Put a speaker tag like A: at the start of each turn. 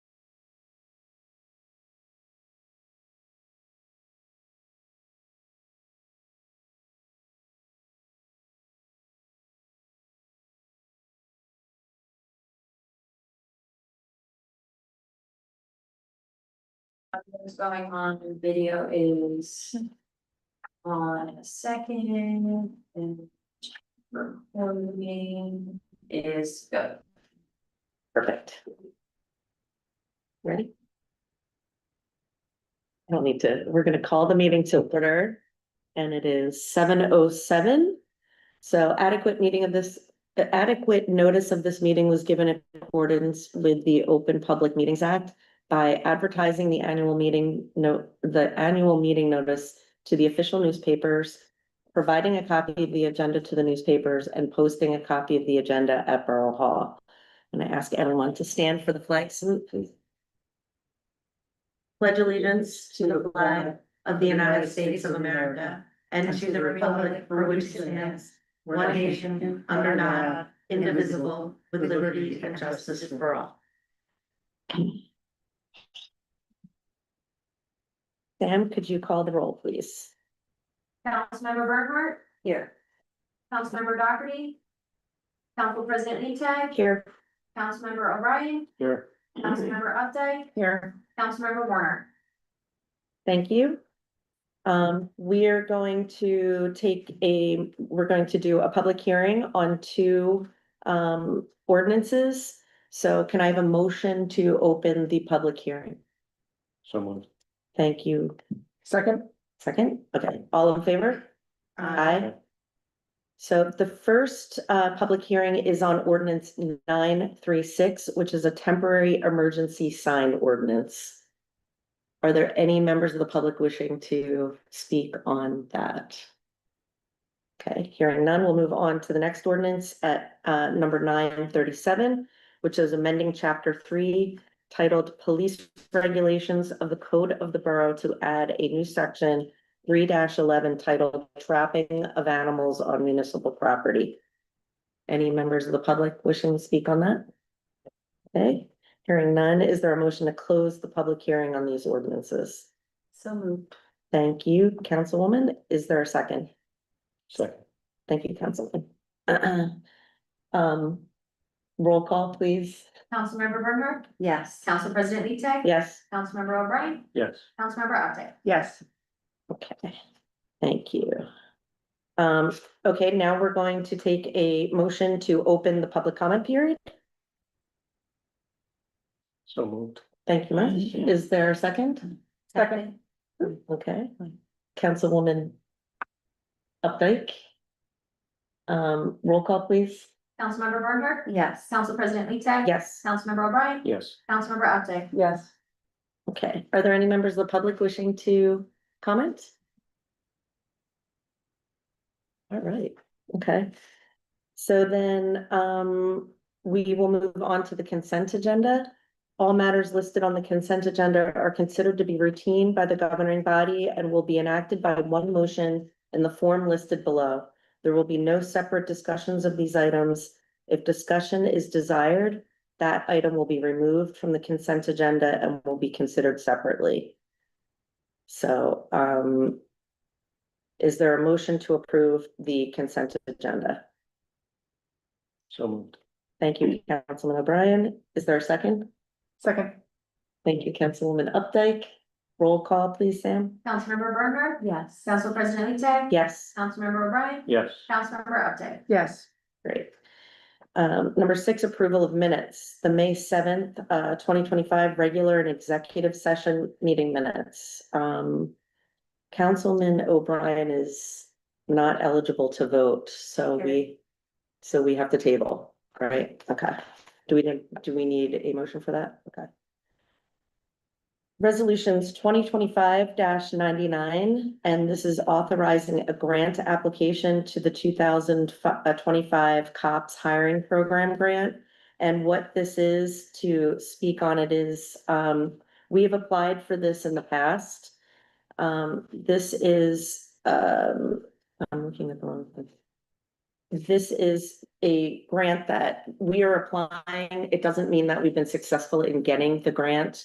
A: What's going on in video is. On a second and. Recording is uh, good.
B: Perfect. Ready? I don't need to, we're gonna call the meeting to order. And it is seven oh seven. So adequate meeting of this, adequate notice of this meeting was given in accordance with the Open Public Meetings Act. By advertising the annual meeting note, the annual meeting notice to the official newspapers. Providing a copy of the agenda to the newspapers and posting a copy of the agenda at Borough Hall. And I ask everyone to stand for the flag salute, please. Pledge allegiance to the flag of the United States of America and to the republic for which it stands, one nation, under God, indivisible, with liberty and justice for all. Sam, could you call the roll, please?
A: Councilmember Bernhardt,
B: Here.
A: Councilmember Doherty. Council President Lee Tag,
B: Here.
A: Councilmember O'Brien,
C: Here.
A: Councilmember Updike,
B: Here.
A: Councilmember Warner.
B: Thank you. Um, we are going to take a, we're going to do a public hearing on two um ordinances. So can I have a motion to open the public hearing?
C: Someone.
B: Thank you.
C: Second.
B: Second, okay, all in favor? Aye. So the first uh public hearing is on ordinance nine three six, which is a temporary emergency sign ordinance. Are there any members of the public wishing to speak on that? Okay, hearing none, we'll move on to the next ordinance at uh number nine thirty-seven, which is amending chapter three titled Police Regulations of the Code of the Borough to add a new section three eleven titled Trapping of Animals on Municipal Property. Any members of the public wishing to speak on that? Okay, hearing none, is there a motion to close the public hearing on these ordinances?
A: So moved.
B: Thank you, Councilwoman. Is there a second?
C: Second.
B: Thank you, Councilman. Um, roll call, please.
A: Councilmember Bernhardt,
B: Yes.
A: Council President Lee Tag,
B: Yes.
A: Councilmember O'Brien,
C: Yes.
A: Councilmember Updike.
B: Yes. Okay, thank you. Um, okay, now we're going to take a motion to open the public comment period.
C: So moved.
B: Thank you much. Is there a second?
A: Second.
B: Okay, Councilwoman Updike. Um, roll call, please.
A: Councilmember Bernhardt,
B: Yes.
A: Council President Lee Tag.
B: Yes.
A: Councilmember O'Brien,
C: Yes.
A: Councilmember Updike.
B: Yes. Okay, are there any members of the public wishing to comment? All right, okay. So then, um, we will move on to the consent agenda. All matters listed on the consent agenda are considered to be routine by the governing body and will be enacted by one motion in the form listed below. There will be no separate discussions of these items. If discussion is desired, that item will be removed from the consent agenda and will be considered separately. So, um, is there a motion to approve the consent agenda?
C: So moved.
B: Thank you, Councilman O'Brien. Is there a second?
A: Second.
B: Thank you, Councilwoman Updike. Roll call, please, Sam.
A: Councilmember Bernhardt,
B: Yes.
A: Council President Lee Tag.
B: Yes.
A: Councilmember O'Brien,
C: Yes.
A: Councilmember Updike.
B: Yes. Great. Um, number six, approval of minutes, the May seventh, uh, twenty twenty-five regular and executive session meeting minutes. Um, Councilman O'Brien is not eligible to vote, so we, so we have to table, right? Okay. Do we, do we need a motion for that? Okay. Resolutions twenty twenty-five ninety-nine, and this is authorizing a grant application to the two thousand uh, twenty-five COPS hiring program grant. And what this is to speak on it is, um, we have applied for this in the past. Um, this is, um, I'm looking at the wrong thing. This is a grant that we are applying. It doesn't mean that we've been successful in getting the grant.